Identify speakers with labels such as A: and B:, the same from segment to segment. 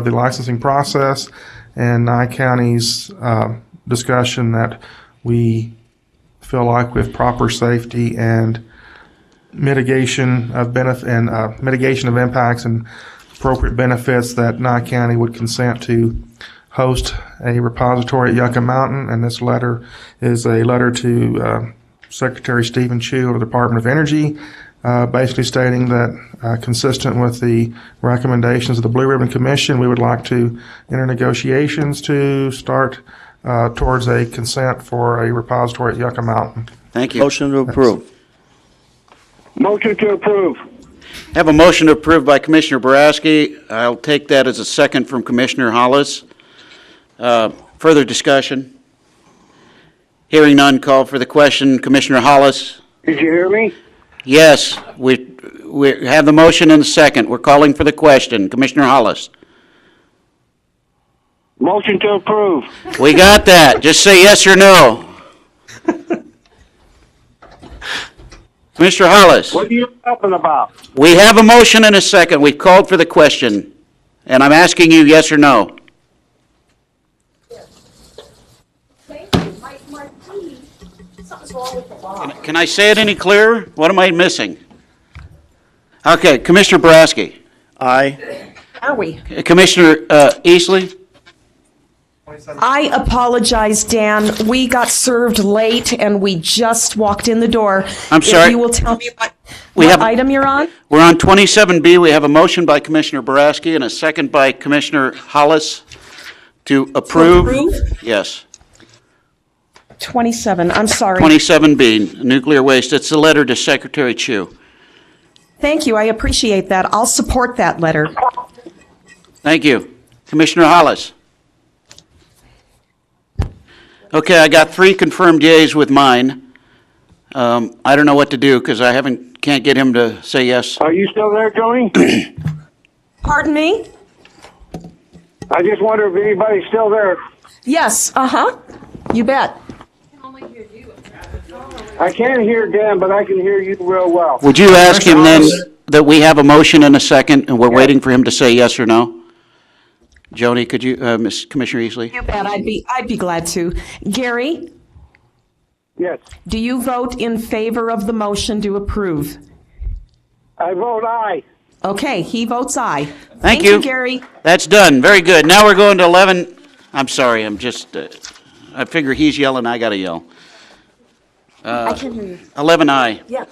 A: the licensing process and Nye County's uh, discussion that we feel like with proper safety and mitigation of benefit and uh, mitigation of impacts and appropriate benefits that Nye County would consent to host a repository at Yucca Mountain. And this letter is a letter to uh, Secretary Stephen Chu of the Department of Energy, uh, basically stating that, uh, consistent with the recommendations of the Blue Ribbon Commission, we would like to enter negotiations to start uh, towards a consent for a repository at Yucca Mountain.
B: Thank you. Motion to approve.
C: Motion to approve.
B: Have a motion to approve by Commissioner Boraski. I'll take that as a second from Commissioner Hollis. Uh, Further discussion? Hearing none, call for the question. Commissioner Hollis?
C: Did you hear me?
B: Yes, we, we have the motion and the second. We're calling for the question. Commissioner Hollis?
C: Motion to approve.
B: We got that. Just say yes or no. Commissioner Hollis?
C: What are you talking about?
B: We have a motion and a second. We've called for the question, and I'm asking you yes or no.
D: Thank you, Mike Martini. Something's wrong with the law.
B: Can I say it any clearer? What am I missing? Okay, Commissioner Boraski.
E: Aye.
F: Are we?
B: Commissioner uh, Eastley?
F: I apologize, Dan. We got served late and we just walked in the door.
B: I'm sorry.
F: If you will tell me what,
B: We
F: what
B: have-
F: item you're on?
B: We're on 27B. We have a motion by Commissioner Boraski and a second by Commissioner Hollis to approve.
F: approve?
B: Yes,
F: 27, I'm sorry.
B: 27B, nuclear waste. It's a letter to Secretary Chu.
F: Thank you, I appreciate that. I'll support that letter.
B: Thank you. Commissioner Hollis? Okay, I got three confirmed yays with mine. Um, I don't know what to do because I haven't, can't get him to say yes.
C: Are you still there, Joni?
F: Pardon me?
C: I just wonder if anybody's still there.
F: Yes, uh-huh, you bet.
C: I can't hear Dan, but I can hear you real well.
B: Would you ask him then that we have a motion and a second and we're waiting for him to say yes or no? Joni, could you, uh, Ms. Commissioner Easley?
F: You bet, I'd be, I'd be glad to. Gary,
C: Yes.
F: do you vote in favor of the motion to approve?
C: I vote aye.
F: Okay, he votes aye. Thank
B: you.
F: Gary.
B: That's done. Very good. Now we're going to 11, I'm sorry, I'm just, uh, I figure he's yelling, I gotta yell.
D: I can hear you.
B: 11I.
D: Yeah.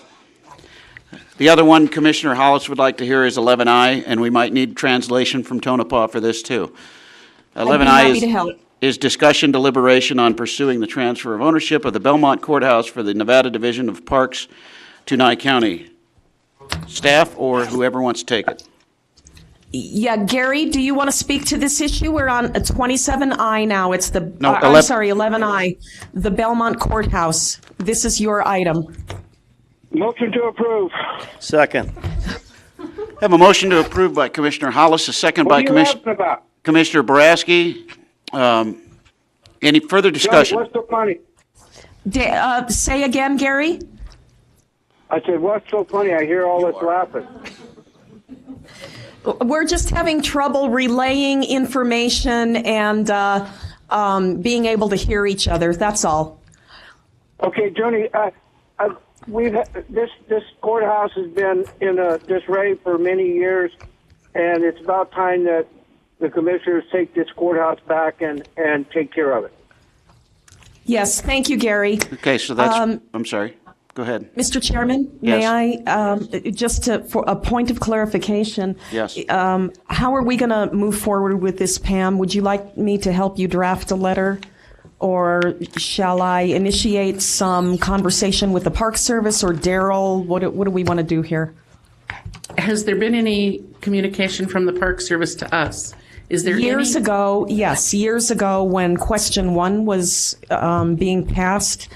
B: The other one Commissioner Hollis would like to hear is 11I, and we might need translation from Tonopah for this, too.
F: happy to
B: 11I
F: help.
B: is, is discussion deliberation on pursuing the transfer of ownership of the Belmont Courthouse for the Nevada Division of Parks to Nye County. Staff or whoever wants to take it.
F: Yeah, Gary, do you want to speak to this issue? We're on a 27I now. It's the,
B: No,
F: uh, I'm
B: 11
F: sorry, 11I, the Belmont Courthouse. This is your item.
C: Motion to approve.
E: Second.
B: Have a motion to approve by Commissioner Hollis, a second
C: What
B: by
C: are you
B: Commissioner,
C: laughing about?
B: Commissioner Boraski. Um, Any further
C: Joni,
B: discussion?
C: what's so funny?
F: Da- uh, Say again, Gary?
C: I said, what's so funny? I hear all this laughing.
F: We're just having trouble relaying information and uh, um, being able to hear each other, that's all.
C: Okay, Joni, uh, uh, we've ha- this this courthouse has been in a disarray for many years, and it's about time that the commissioners take this courthouse back and and take care of it.
F: Yes, thank you, Gary.
B: Okay, so that's,
F: Um,
B: I'm sorry. Go ahead.
F: Mr. Chairman,
B: Yes.
F: may I, um, just to, for a point of clarification?
B: Yes.
F: um, How are we going to move forward with this, Pam? Would you like me to help you draft a letter? Or shall I initiate some conversation with the Park Service or Daryl? What, do- what do we want to do here?
G: Has there been any communication from the Park Service to us? Is there
F: Years
G: any-
F: ago, yes, years ago, when question one was um, being passed,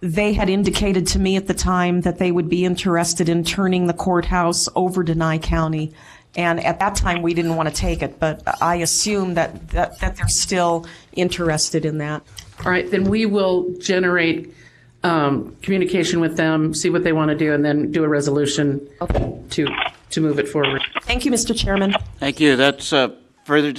F: they had indicated to me at the time that they would be interested in turning the courthouse over to Nye County. And at that time, we didn't want to take it, but I assume that, that, that they're still interested in that.
G: All right, then we will generate um, communication with them, see what they want to do, and then do a resolution to to move it forward.
F: Thank you, Mr. Chairman.
B: Thank you. That's uh, further